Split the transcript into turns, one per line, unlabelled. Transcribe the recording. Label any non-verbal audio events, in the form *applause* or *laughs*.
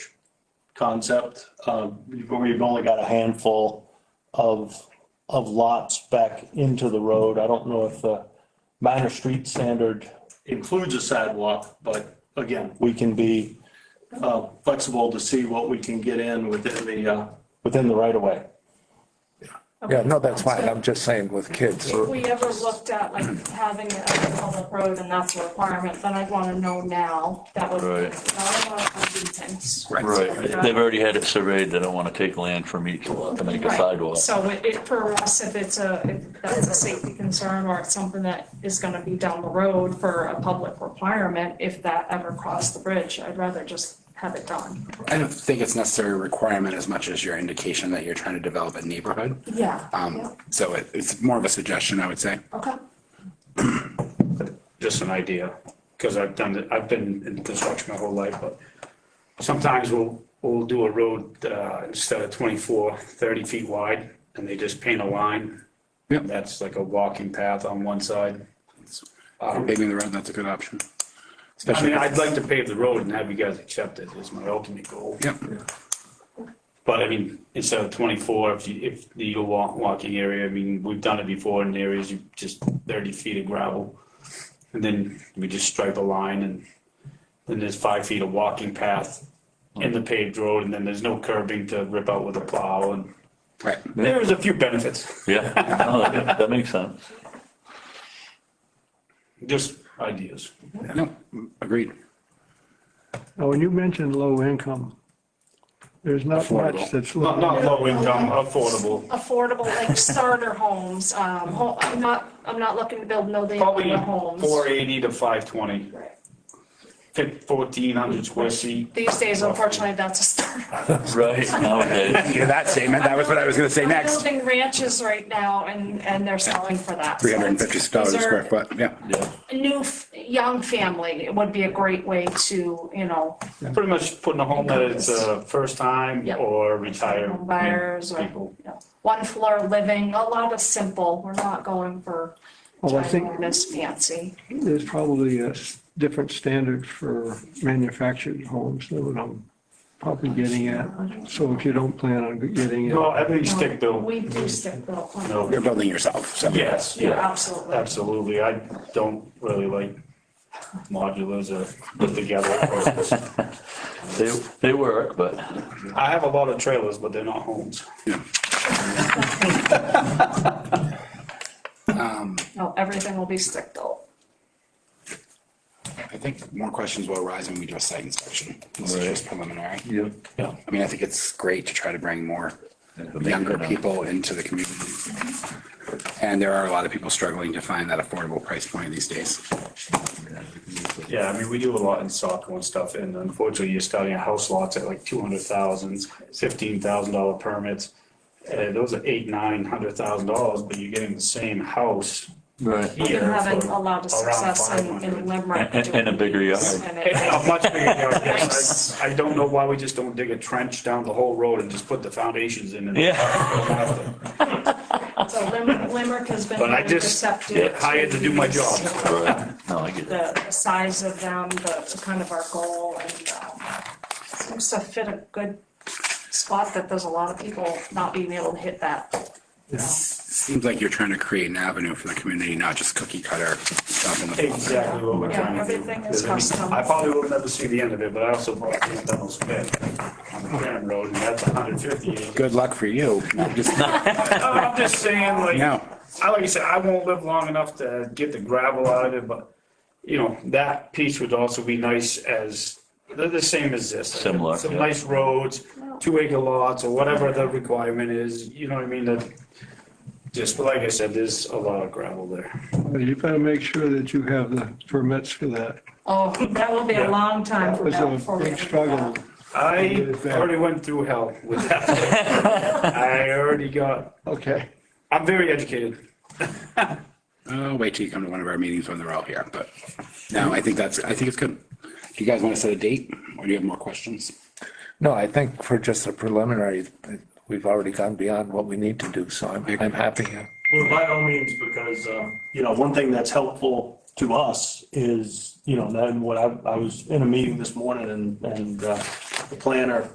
concept, um, where you've only got a handful of, of lots back into the road. I don't know if the minor street standard includes a sidewalk, but again, we can be uh, flexible to see what we can get in within the, uh, within the right of way.
Yeah, no, that's fine. I'm just saying with kids.
If we ever looked at like having it as a public road and that's a requirement, then I'd wanna know now. That would.
Right.
I don't wanna do things.
Right, they've already had it surveyed, they don't want to take land from each lot to make a
Right.
sidewalk.
So it, it, for us, if it's a, if that's a safety concern or it's something that is gonna be down the road for a public requirement, if that ever crossed the bridge, I'd rather just have it done.
I don't think it's necessarily a requirement as much as your indication that you're trying to develop a neighborhood.
Yeah.
Um, so it, it's more of a suggestion, I would say.
Okay.
just an idea, because I've done, it- I've been in construction my whole life, but sometimes we'll, we'll do a road, uh, instead of 24, 30 feet wide, and they just paint a line.
Yep.
That's like a walking path on one side. Um,
Paving the road, that's a good option.
I
Especially,
mean, I'd like to pave the road and have you guys accept it, is my ultimate goal.
yep,
But I mean, instead of 24, if you, if the walk, walking area, I mean, we've done it before in areas, you just 30 feet of gravel. And then we just stripe a line and then there's five feet of walking path in the paved road and then there's no curbing to rip out with a plow and
right.
there's a few benefits,
Yeah, no, that that makes sense.
just ideas.
No, agreed.
Now, when you mentioned low income, there's not
Affordable.
much that's.
Not, not low income, affordable.
Affordable, like starter homes, um, ho- I'm not, I'm not looking to build no damn
Probably
homes.
480 to 520,
Right.
fif- 1400 square feet.
These days, unfortunately, that's a starter.
Right, nowadays,
Yeah, that statement, that was what I was gonna say
I'm
next.
building ranches right now and, and they're selling for that.
Three hundred and fifty dollars a square foot, yeah.
yeah.
A new, f- young family would be a great way to, you know,
Pretty much putting a home that it's a first time
Yep.
or retired.
home buyers or,
people.
you know, one floor living, a lot of simple. We're not going for
Well, I think
ginormous fancy.
there's probably a s- different standard for manufactured homes than what I'm probably getting at. So if you don't plan on getting it,
No, I think stick built.
We do stick built homes.
No,
You're building yourself, so.
yes,
Yeah,
yeah,
absolutely.
absolutely. I don't really like modulars or put together.
*laughs*
They, they work, but
I have a lot of trailers, but they're not homes.
No, everything will be stick built.
I think more questions will arise when we do a site inspection. This is just preliminary.
yeah.
Yeah.
I mean, I think it's great to try to bring more younger people into the community. And there are a lot of people struggling to find that affordable price point these days.
Yeah, I mean, we do a lot in soccer and stuff, and unfortunately, you're starting at house lots at like two hundred thousand, fifteen thousand dollar permits. And those are eight, nine hundred thousand dollars, but you're getting the same house
Right.
here.
We've been having
for
a lot of
around
success in,
500.
in Limerick.
And- and a bigger yard.
And
*laughs*
it-
Yeah, a much
*laughs*
bigger yard, yes. I I don't know why we just don't dig a trench down the whole road and just put the foundations in. and-
Yeah.
So Lim- Limerick has been
But I
very
just
receptive.
get hired to do my job.
Right, no, I get it.
The the size of them, the the kind of our goal and um, seems to fit a good spot that there's a lot of people not being able to hit that. you know.
Seems like you're trying to create an avenue for the community, not just cookie cutter stuff in the.
Exactly what we're
Yeah,
trying to do.
everything is
Because, I mean,
custom.
I probably will never see the end of it, but I also bought the Dunlop's bed on the Grand Road, and that's hundred fifty acres.
Good luck for you. No, I'm just-
No, I'm just saying, like,
No.
I, like I said, I won't live long enough to get the gravel out of it, but, you know, that piece would also be nice as, they're the same as this.
Similar,
Some
yeah.
nice roads, two acre lots, or whatever the requirement is, you know what I mean, that, just, like I said, there's a lot of gravel there.
you better make sure that you have the permits for that.
Oh, that will be a long time
That
from
was
now before
a
we.
big struggle.
I already went through hell with that.
*laughs*
I already got,
Okay.
I'm very educated.
Oh, wait till you come to one of our meetings when they're all here, but no, I think that's, I think it's good. Do you guys want to set a date or do you have more questions?
No, I think for just a preliminary, we've already gone beyond what we need to do, so I'm, I'm happy.
Well, by all means, because, um, you know, one thing that's helpful to us is, you know, then what I, I was in a meeting this morning and, and, uh, the planner